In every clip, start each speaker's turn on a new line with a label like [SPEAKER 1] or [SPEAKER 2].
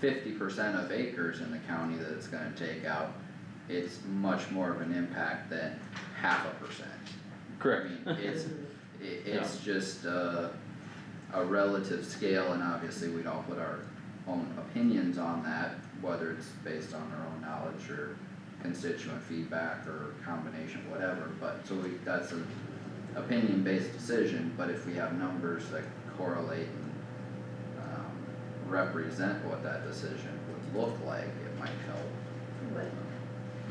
[SPEAKER 1] fifty percent of acres in the county that it's gonna take out, it's much more of an impact than half a percent.
[SPEAKER 2] Correct.
[SPEAKER 1] I mean, it's, i it's just, uh, a relative scale and obviously we'd all put our own opinions on that, whether it's based on our own knowledge or constituent feedback or combination, whatever, but, so we, that's an opinion-based decision, but if we have numbers that correlate and, um, represent what that decision would look like, it might help.
[SPEAKER 3] But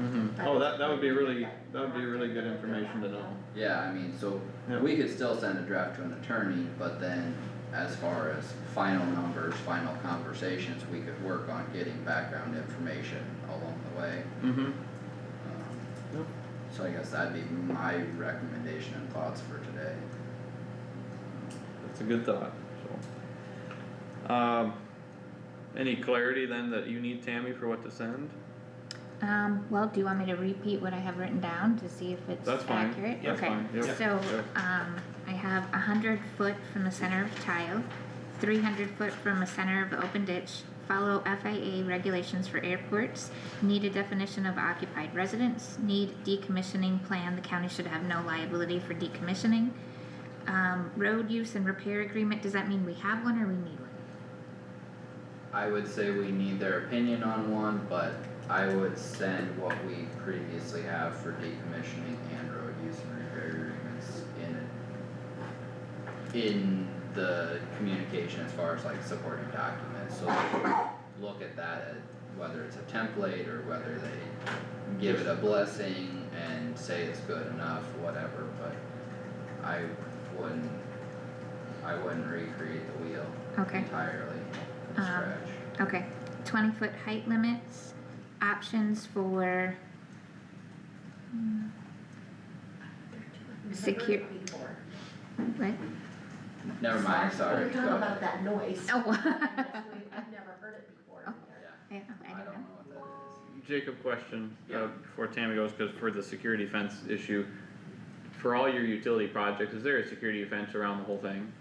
[SPEAKER 2] Mm-hmm. Oh, that, that would be really, that would be really good information to know.
[SPEAKER 1] Yeah, I mean, so
[SPEAKER 2] Yeah.
[SPEAKER 1] we could still send a draft to an attorney, but then as far as final numbers, final conversations, we could work on getting background information along the way.
[SPEAKER 2] Mm-hmm.
[SPEAKER 1] Um,
[SPEAKER 2] Yep.
[SPEAKER 1] So I guess that'd be my recommendation and thoughts for today.
[SPEAKER 2] That's a good thought, so. Um, any clarity then that you need Tammy for what to send?
[SPEAKER 4] Um, well, do you want me to repeat what I have written down to see if it's
[SPEAKER 2] That's fine.
[SPEAKER 4] accurate?
[SPEAKER 2] That's fine. Yep.
[SPEAKER 4] Okay, so, um, I have a hundred foot from the center of tile, three hundred foot from the center of open ditch, follow FIA regulations for airports, need a definition of occupied residence, need decommissioning plan, the county should have no liability for decommissioning. Um, road use and repair agreement, does that mean we have one or we need one?
[SPEAKER 1] I would say we need their opinion on one, but I would send what we previously have for decommissioning and road use and repair agreements in in the communication as far as like supporting documents, so they can look at that at whether it's a template or whether they give it a blessing and say it's good enough, whatever, but I wouldn't I wouldn't recreate the wheel
[SPEAKER 4] Okay.
[SPEAKER 1] entirely from
[SPEAKER 4] Um,
[SPEAKER 1] scratch.
[SPEAKER 4] Okay, twenty foot height limits, options for. Hmm, Secure-
[SPEAKER 3] Before.
[SPEAKER 4] What?
[SPEAKER 1] Never mind, sorry.
[SPEAKER 3] We're talking
[SPEAKER 1] go ahead.
[SPEAKER 3] about that noise.
[SPEAKER 4] Oh.
[SPEAKER 3] I've never heard it before.
[SPEAKER 4] Oh.
[SPEAKER 1] Yeah,
[SPEAKER 4] Yeah, okay, I
[SPEAKER 1] I don't
[SPEAKER 4] don't know.
[SPEAKER 1] know what that
[SPEAKER 2] Jacob question, uh,
[SPEAKER 1] Yeah.
[SPEAKER 2] before Tammy goes, cause for the security fence issue, for all your utility projects, is there a security fence around the whole thing?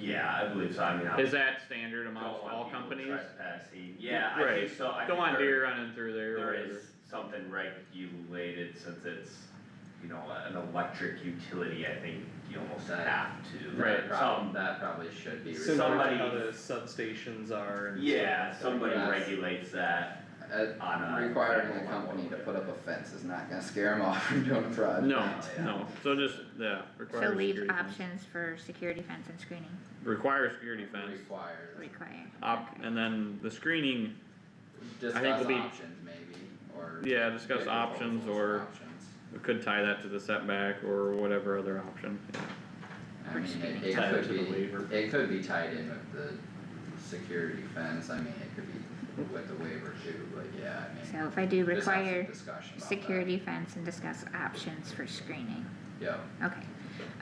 [SPEAKER 5] Yeah, I believe so, I mean, I.
[SPEAKER 2] Is that standard
[SPEAKER 5] don't
[SPEAKER 2] amongst
[SPEAKER 5] want
[SPEAKER 2] all
[SPEAKER 5] people
[SPEAKER 2] companies?
[SPEAKER 5] Trespassing, yeah, I
[SPEAKER 2] Right.
[SPEAKER 5] think so, I think
[SPEAKER 2] Don't want
[SPEAKER 5] there-
[SPEAKER 2] deer running through there or
[SPEAKER 5] There
[SPEAKER 2] whatever.
[SPEAKER 5] is something regulated since it's, you know, an electric utility, I think you almost
[SPEAKER 1] That-
[SPEAKER 5] have to.
[SPEAKER 1] is. That
[SPEAKER 2] Right,
[SPEAKER 1] prob-
[SPEAKER 5] Some,
[SPEAKER 1] that probably should be,
[SPEAKER 5] So-
[SPEAKER 1] re-
[SPEAKER 6] similar to
[SPEAKER 5] Somebody-
[SPEAKER 6] How the substations are and.
[SPEAKER 5] yeah,
[SPEAKER 6] stuff like
[SPEAKER 5] somebody
[SPEAKER 1] Yes.
[SPEAKER 5] regulates that
[SPEAKER 1] uh,
[SPEAKER 5] on a.
[SPEAKER 1] requiring the
[SPEAKER 5] federal level.
[SPEAKER 1] company to put up a fence is not gonna scare them off from doing a project.
[SPEAKER 2] No,
[SPEAKER 1] Yeah.
[SPEAKER 2] no, so just, yeah, require a
[SPEAKER 4] So leave
[SPEAKER 2] security fence.
[SPEAKER 4] options for security fence and screening
[SPEAKER 2] Require a security fence,
[SPEAKER 1] Required,
[SPEAKER 4] required.
[SPEAKER 2] op, and then the screening,
[SPEAKER 1] discuss
[SPEAKER 2] will be-
[SPEAKER 1] options maybe, or.
[SPEAKER 2] Yeah, discuss
[SPEAKER 1] make
[SPEAKER 2] options
[SPEAKER 1] proposals
[SPEAKER 2] or-
[SPEAKER 1] for options.
[SPEAKER 2] we could tie that to the setback or whatever other
[SPEAKER 1] I
[SPEAKER 2] option,
[SPEAKER 1] mean, it,
[SPEAKER 4] Proceeding.
[SPEAKER 1] it
[SPEAKER 6] Tie it
[SPEAKER 1] could
[SPEAKER 6] to the waiver.
[SPEAKER 1] be, it could be tied in with the security fence, I mean, it could be with the waiver too, but yeah, I mean.
[SPEAKER 4] So if I do
[SPEAKER 1] just have some
[SPEAKER 4] require
[SPEAKER 1] discussion about that.
[SPEAKER 4] security fence and discuss options for screening,
[SPEAKER 1] Yeah,
[SPEAKER 4] okay.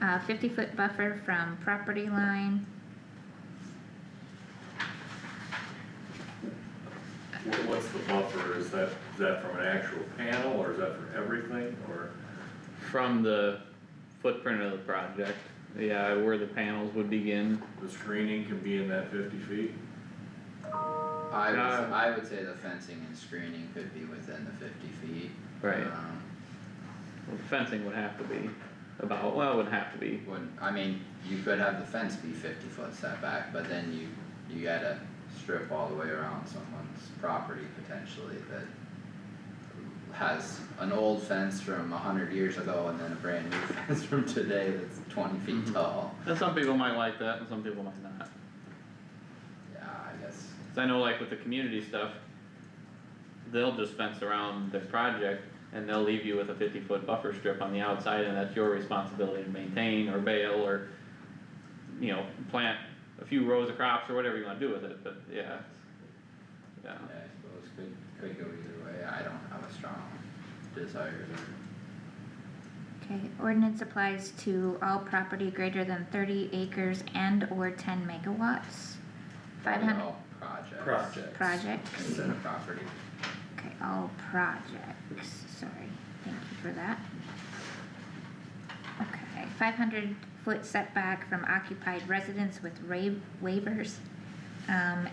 [SPEAKER 4] Uh, fifty foot buffer from property line,
[SPEAKER 7] Wha- What's the buffer, is that, is that from an actual panel, or is that for everything, or?
[SPEAKER 2] from the footprint of the project, yeah, where the panels would begin.
[SPEAKER 7] The screening can be in that fifty feet?
[SPEAKER 1] I would,
[SPEAKER 2] Uh,
[SPEAKER 1] I would say the fencing and screening could be within the fifty feet. Um,
[SPEAKER 2] Well, Fencing would have to be about, well, it would have to be,
[SPEAKER 1] Wouldn't, I mean, you could have the fence be fifty foot setback, but then you, you gotta strip all the way around someone's property potentially that has an old fence from a hundred years ago and then a brand new fence from today that's twenty feet
[SPEAKER 2] Mhm.
[SPEAKER 1] tall.
[SPEAKER 2] and some people might like that and some people might not.
[SPEAKER 1] Yeah, I guess,
[SPEAKER 2] 'Cause I know like with the community stuff, they'll just fence around their project and they'll leave you with a fifty foot buffer strip on the outside and that's your responsibility to maintain or bail or, you know, plant a few rows of crops or whatever you wanna do with it, but yeah. Yeah,
[SPEAKER 1] yeah, I suppose could, could go either way, I don't have a strong desire to,
[SPEAKER 4] okay, ordinance applies to all property greater than thirty acres and or ten megawatts. Five
[SPEAKER 1] probably
[SPEAKER 4] hundred
[SPEAKER 1] all projects.
[SPEAKER 6] Projects.
[SPEAKER 4] projects,
[SPEAKER 1] Instead of property.
[SPEAKER 4] okay, all projects, sorry, thank you for that. Okay, five hundred foot setback from occupied residence with ra- waivers, um,